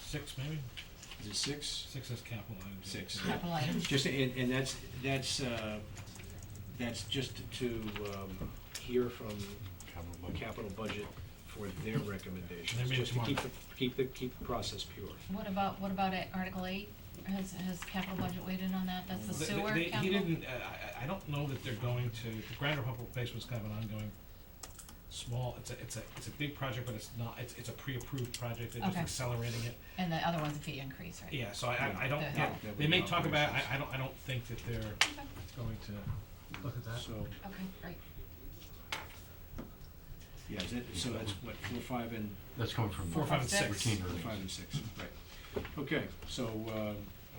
six maybe? Is it six? Six is capital items. Six. capital item. Just, and, and that's, that's, uh, that's just to, um, hear from capital budget for their recommendations, Maybe just to tomorrow. keep the, keep the, keep the process pure. What about, what about at Article eight? Has, has capital budget weighed in on that? That's the They- they- sewer they- capital? He didn't, uh, I, I- I don't know that they're going to, the grinder pump replacement's kind of an ongoing, small, it's a, it's a, it's a big project, but it's not, it's, it's a pre-approved project, they're just Okay. accelerating it. And the other one's a fee increase, right? Yeah, so I, I- I don't, Yeah. yeah, That would they may be talk about, I, operations. I don't, I don't think that they're Okay, going to look at that. So, okay, great. yeah, is that, so that's what, four, five, and, That's coming from. Four, five, and six. Routine four, five, earnings. and six, right. Okay, so, uh,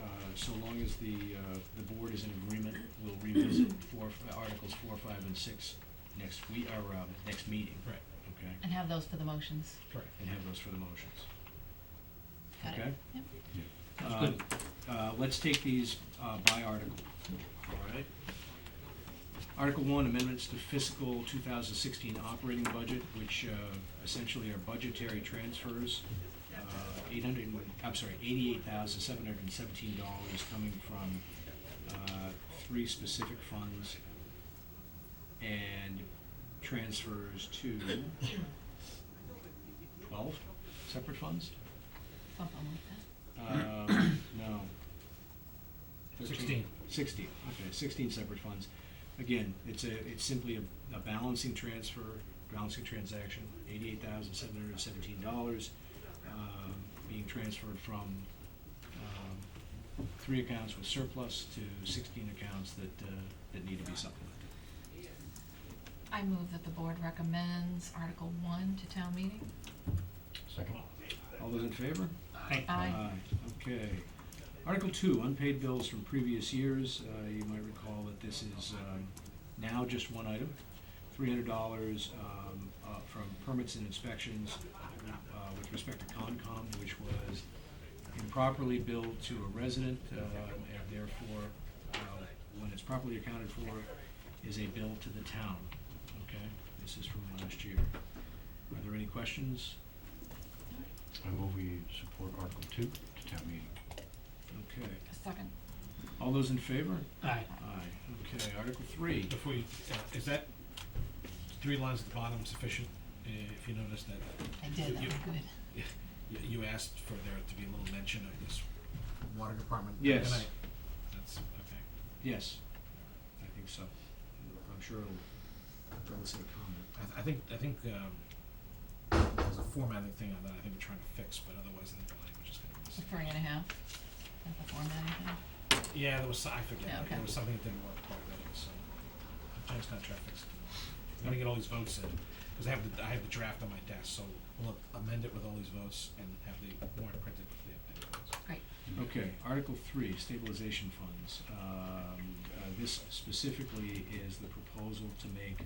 uh, so long as the, uh, the board is in agreement, we'll revisit four, articles four, five, and six next we our, um, next meeting. Right. Okay, And have those for the motions. Correct. and have those for the motions. Got it? Okay. Yep. Uh, uh, Let's take these uh, by article, all right? Article one, amendments to fiscal 2016 operating budget, which uh, essentially are budgetary transfers. uh, 800, and- I'm sorry, $88,717 coming from uh, three specific funds and transfers to 12 separate funds? Something like Um, no. 13. Sixteen. Sixteen, okay, sixteen separate funds. Again, it's a, it's simply a, a balancing transfer, balancing transaction, eighty-eight thousand seven hundred and seventeen dollars, um, being transferred from, um, three accounts with surplus to sixteen accounts that, uh, that need to be supplemented. that. I move that the board recommends Article one to town meeting. Second. All those in favor? Aye. Okay. Article two, unpaid bills from previous years. Uh, You might recall that this is um, now just one item. Three hundred dollars um, uh, from permits and inspections uh, with respect to Concom, which was improperly billed to a resident, um, and therefore, uh, when it's properly accounted for, is a bill to the town. Okay? This is from last year. Are there any questions? I move we support Article two to town meeting. Okay. Second. All those in favor? Aye. Aye, okay, Article three, Before you, uh, is that three lines at the bottom sufficient? Uh, If you notice that, I did, that You- was good. you, you asked for there to be a little mention of this. Water department. Yes. Can I- That's, okay. yes, I think so. I'm sure it'll, it'll say comment. I, th- I think, I think, um, there's a formatting thing on that I think we're trying to fix, but otherwise I think the language is gonna be the The same. three and a half, is the format I have. Yeah, there was, so- I Yeah, forget, okay. there was something that didn't work quite right, so, Jen's contract fixed it. I'm gonna get all these votes in, cause I have the, I have the draft on my desk, so we'll amend it with all these votes and have the warrant printed with the updated votes. Great. Okay, Article three, stabilization funds. Um, uh, this specifically is the proposal to make,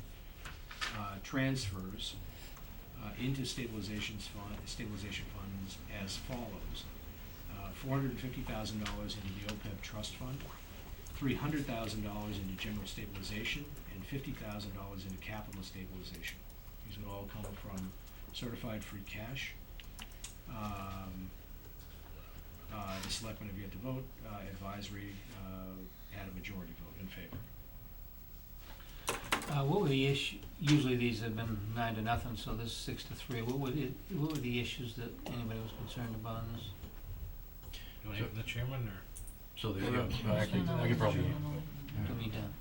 uh, transfers, uh, into stabilizations fund, stabilization funds as follows. Uh, four hundred and fifty thousand dollars into the OPEB trust fund, three hundred thousand dollars into general stabilization, and fifty thousand dollars into capital stabilization. These would all come from certified free cash. Um, uh, the selectmen have yet to vote, uh, advisory, uh, had a majority vote in favor. Uh, what were the issue, usually these have been nine to nothing, so this is six to three. What were the, what were the issues that anybody was concerned about in this? Do I have the chairman or? So there you go. Motion Uh, I on can, the I one, can probably. motion on the one. What we done?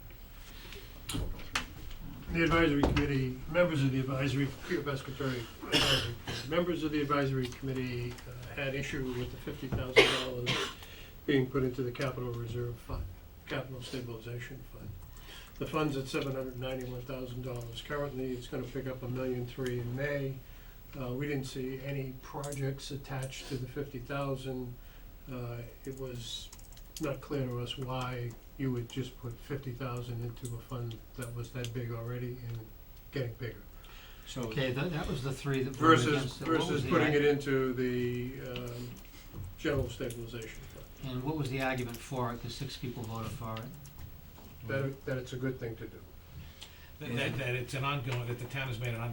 The advisory committee, members of the advisory, Peter Pescatore, advisory committee, members of the advisory committee uh, had issue with the fifty thousand dollars being put into the capital reserve fund, capital stabilization fund. The fund's at seven hundred ninety-one thousand dollars currently, it's gonna pick up a million three in May. Uh, we didn't see any projects attached to the fifty thousand. Uh, it was not clear to us why you would just put fifty thousand into a fund that was that big already and getting bigger. So. Okay, that, that was the three that voted Versus, against it. What was versus the putting arg- it into the, um, general stabilization fund, And what was the argument for it? Cause six people voted for it. that, that it's a good thing to do. That, that- that it's an ongoing, that the town has made an ongoing